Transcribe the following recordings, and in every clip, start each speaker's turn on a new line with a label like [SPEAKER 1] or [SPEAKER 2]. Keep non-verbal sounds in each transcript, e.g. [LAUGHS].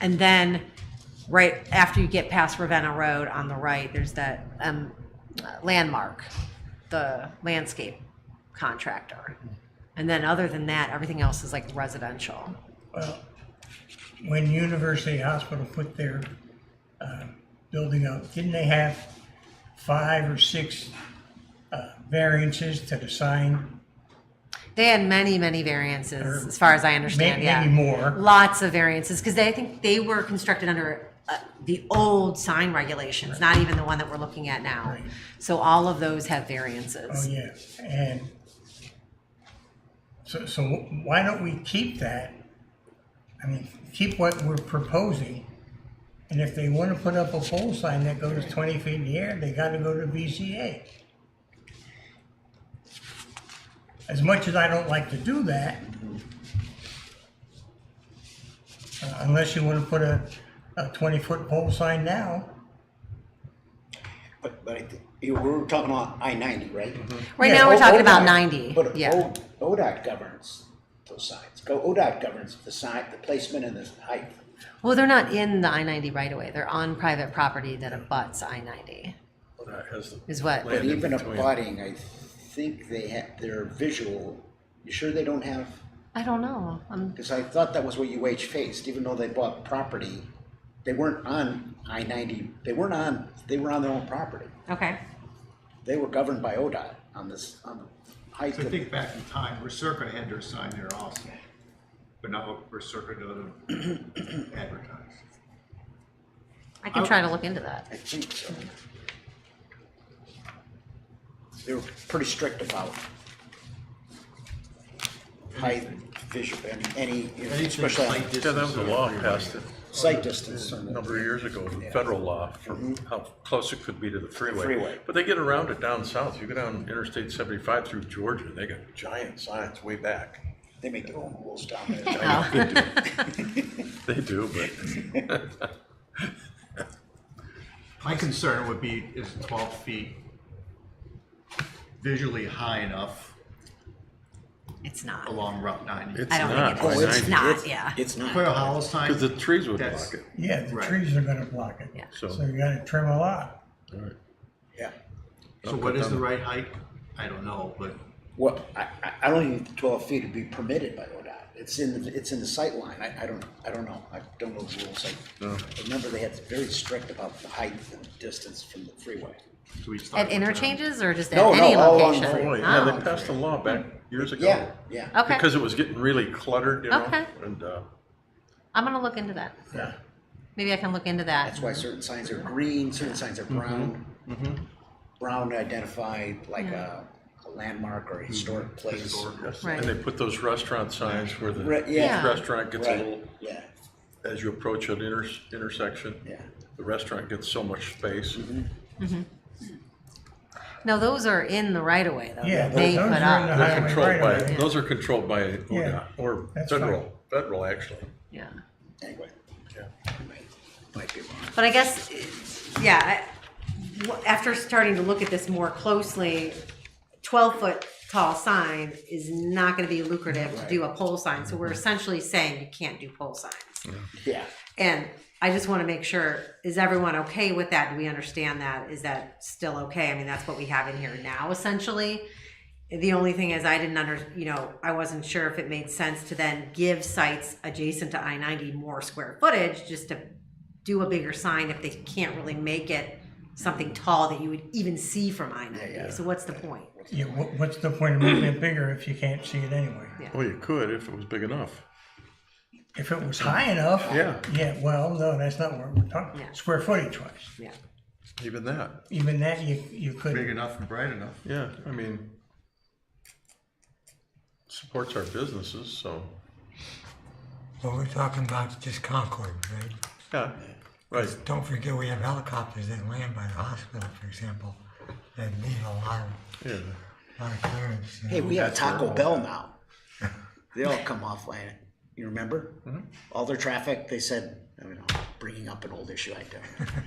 [SPEAKER 1] And then right after you get past Ravenna Road on the right, there's that um, landmark, the landscape contractor. And then other than that, everything else is like residential.
[SPEAKER 2] Well, when University Hospital put their uh, building up, didn't they have five or six uh, variances to the sign?
[SPEAKER 1] They had many, many variances, as far as I understand.
[SPEAKER 2] May-
[SPEAKER 1] yeah,
[SPEAKER 2] Maybe more.
[SPEAKER 1] lots of variances because they I think they were constructed under uh, the old sign regulations, not even the one that we're looking at now.
[SPEAKER 2] Right.
[SPEAKER 1] So all of those have
[SPEAKER 2] Oh,
[SPEAKER 1] variances.
[SPEAKER 2] yeah, and so, so why don't we keep that? I mean, keep what we're proposing. And if they want to put up a pole sign that goes twenty feet in the air, they got to go to VCA. As much as I don't like to do that, uh, unless you want to put a, a twenty-foot pole sign now,
[SPEAKER 3] But, but I think, you know, we're talking about I ninety, right?
[SPEAKER 4] Mm-hmm.
[SPEAKER 1] Right
[SPEAKER 2] Oh, Yeah, oh,
[SPEAKER 1] now,
[SPEAKER 3] O-
[SPEAKER 1] we're talking about
[SPEAKER 3] ODOT
[SPEAKER 1] ninety.
[SPEAKER 3] But
[SPEAKER 1] yeah.
[SPEAKER 3] O- ODOT governs those signs. Go, ODOT governs the sign, the placement and the height.
[SPEAKER 1] Well, they're not in the I ninety right away. They're on private property that abuts I ninety.
[SPEAKER 5] That has the-
[SPEAKER 1] Is what?
[SPEAKER 5] Land.
[SPEAKER 3] But
[SPEAKER 5] in
[SPEAKER 3] even
[SPEAKER 5] between.
[SPEAKER 3] abutting, I think they have, their visual, you sure they don't have?
[SPEAKER 1] I don't know. I'm,
[SPEAKER 3] Because I thought that was what UH faced, even though they bought property, they weren't on I ninety, they weren't on, they were on their own property.
[SPEAKER 1] okay.
[SPEAKER 3] They were governed by ODOT on this, on the height
[SPEAKER 4] So I
[SPEAKER 3] of
[SPEAKER 4] think back in time, Recirca had their sign there also, but now Recirca doesn't advertise.
[SPEAKER 1] I
[SPEAKER 3] Oh.
[SPEAKER 1] can try to look into that.
[SPEAKER 3] I think so. They were pretty strict about height, visual, and any,
[SPEAKER 4] Anything
[SPEAKER 3] especially on
[SPEAKER 4] slight distance
[SPEAKER 5] Yeah, that was a
[SPEAKER 4] over
[SPEAKER 5] law
[SPEAKER 4] your
[SPEAKER 5] passed
[SPEAKER 4] right.
[SPEAKER 5] a
[SPEAKER 3] sight distance. and-
[SPEAKER 5] number of years ago, the federal law for how close it could be to the freeway.
[SPEAKER 3] Mm-hmm. Freeway.
[SPEAKER 5] But they get around it down south. You go down Interstate seventy-five through Georgia, they got giant signs way back.
[SPEAKER 3] They make their own rules down there.
[SPEAKER 1] [LAUGHS] Oh.
[SPEAKER 5] [LAUGHS] They do, but
[SPEAKER 4] My concern would be, is twelve feet visually high enough
[SPEAKER 1] it's not.
[SPEAKER 4] along Route ninety?
[SPEAKER 5] it's
[SPEAKER 1] I don't think
[SPEAKER 5] not.
[SPEAKER 1] it is. It's
[SPEAKER 5] It's
[SPEAKER 1] not, yeah.
[SPEAKER 3] It's not.
[SPEAKER 4] Put a hollow sign.
[SPEAKER 5] Because the trees would
[SPEAKER 4] That's-
[SPEAKER 5] block it,
[SPEAKER 2] yeah, the
[SPEAKER 4] Right.
[SPEAKER 2] trees are going to block it.
[SPEAKER 1] Yeah.
[SPEAKER 5] so.
[SPEAKER 2] So you got to trim a lot.
[SPEAKER 5] all right.
[SPEAKER 3] Yeah.
[SPEAKER 4] So what is the right height? I don't know, but
[SPEAKER 3] Well, I, I, I don't even think twelve feet would be permitted by ODOT. It's in, the it's in the sight line. I, I don't, I don't know. I don't know the rules. I- I remember they had very strict about the height and distance from the freeway.
[SPEAKER 4] do we start?
[SPEAKER 1] At
[SPEAKER 4] with that?
[SPEAKER 1] interchanges or just at
[SPEAKER 3] No, no,
[SPEAKER 1] any
[SPEAKER 3] all along
[SPEAKER 1] location?
[SPEAKER 3] the
[SPEAKER 5] Oh, yeah,
[SPEAKER 1] Oh,
[SPEAKER 5] they passed a law back years ago.
[SPEAKER 3] Yeah, yeah.
[SPEAKER 1] okay.
[SPEAKER 5] Because it was getting really cluttered, you know,
[SPEAKER 1] Okay.
[SPEAKER 5] and, uh,
[SPEAKER 1] I'm gonna look into that.
[SPEAKER 2] Yeah.
[SPEAKER 1] Maybe I can look into that.
[SPEAKER 3] That's why certain signs are green, certain signs are brown. Mm-hmm. Brown to identify like a, a landmark or a Mm-hmm. historic place.
[SPEAKER 5] yes,
[SPEAKER 1] Right.
[SPEAKER 5] and they put those restaurant signs where the,
[SPEAKER 3] Right,
[SPEAKER 5] each
[SPEAKER 3] yeah.
[SPEAKER 5] restaurant gets a
[SPEAKER 3] Right,
[SPEAKER 5] little,
[SPEAKER 3] Yeah,
[SPEAKER 5] as you approach an inter, intersection.
[SPEAKER 3] yeah.
[SPEAKER 5] The restaurant gets so much space.
[SPEAKER 2] Mm-hmm.
[SPEAKER 1] No, those are in the right of way though.
[SPEAKER 2] Yeah,
[SPEAKER 1] that they
[SPEAKER 2] those-
[SPEAKER 1] put
[SPEAKER 2] those are in
[SPEAKER 1] up.
[SPEAKER 2] the-
[SPEAKER 5] They're
[SPEAKER 2] highway
[SPEAKER 5] controlled
[SPEAKER 2] right
[SPEAKER 5] by,
[SPEAKER 2] away.
[SPEAKER 5] those are controlled by
[SPEAKER 2] Yeah,
[SPEAKER 5] ODOT or
[SPEAKER 2] that's
[SPEAKER 5] federal, federal actually.
[SPEAKER 1] Yeah,
[SPEAKER 3] Anyway,
[SPEAKER 5] Yeah.
[SPEAKER 3] I might, might be wrong.
[SPEAKER 1] but I guess, yeah. I- w- After starting to look at this more closely, twelve foot tall sign is not going to be lucrative to do a pole sign. So we're essentially saying you can't do pole signs.
[SPEAKER 3] Yeah,
[SPEAKER 1] And I just want to make sure, is everyone okay with that? Do we understand that? Is that still okay? I mean, that's what we have in here now essentially. The only thing is I didn't under, you know, I wasn't sure if it made sense to then give sites adjacent to I ninety more square footage just to do a bigger sign if they can't really make it something tall that you would even see from I ninety. So what's the point?
[SPEAKER 2] Yeah, what, what's the point of making it bigger if you can't see it anyway?
[SPEAKER 1] Yeah.
[SPEAKER 5] Well, you could if it was big enough.
[SPEAKER 2] If it was high enough.
[SPEAKER 5] Yeah.
[SPEAKER 2] Yeah, well, no, that's not what we're talking,
[SPEAKER 1] Yeah.
[SPEAKER 2] square footage wise.
[SPEAKER 1] Yeah.
[SPEAKER 5] Even that,
[SPEAKER 2] Even that, you, you
[SPEAKER 4] Big
[SPEAKER 2] could,
[SPEAKER 4] enough and bright enough.
[SPEAKER 5] yeah, I mean, supports our businesses, so,
[SPEAKER 6] Well, we're talking about just Concord, right?
[SPEAKER 5] yeah, right.
[SPEAKER 6] Don't forget we have helicopters that land by the hospital, for example, that need a lot of,
[SPEAKER 5] Yeah,
[SPEAKER 6] lot of clearance. you
[SPEAKER 3] hey,
[SPEAKER 6] know?
[SPEAKER 3] we have Taco Bell [LAUGHS] now. They all come off land, you remember? All their traffic, they said, I mean, I'm bringing up an old issue, I don't. [LAUGHS]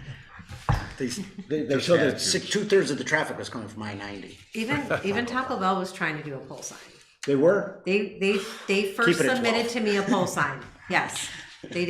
[SPEAKER 3] They, s- they, they showed that six, two thirds of the traffic was coming from I ninety.
[SPEAKER 1] Even,
[SPEAKER 3] [LAUGHS]
[SPEAKER 1] even Taco Bell was trying to do a pole sign.
[SPEAKER 3] They were,
[SPEAKER 1] They, they, they first
[SPEAKER 3] Keep it at
[SPEAKER 1] submitted
[SPEAKER 3] 12. [LAUGHS]
[SPEAKER 1] to me a pole sign. Yes, they did.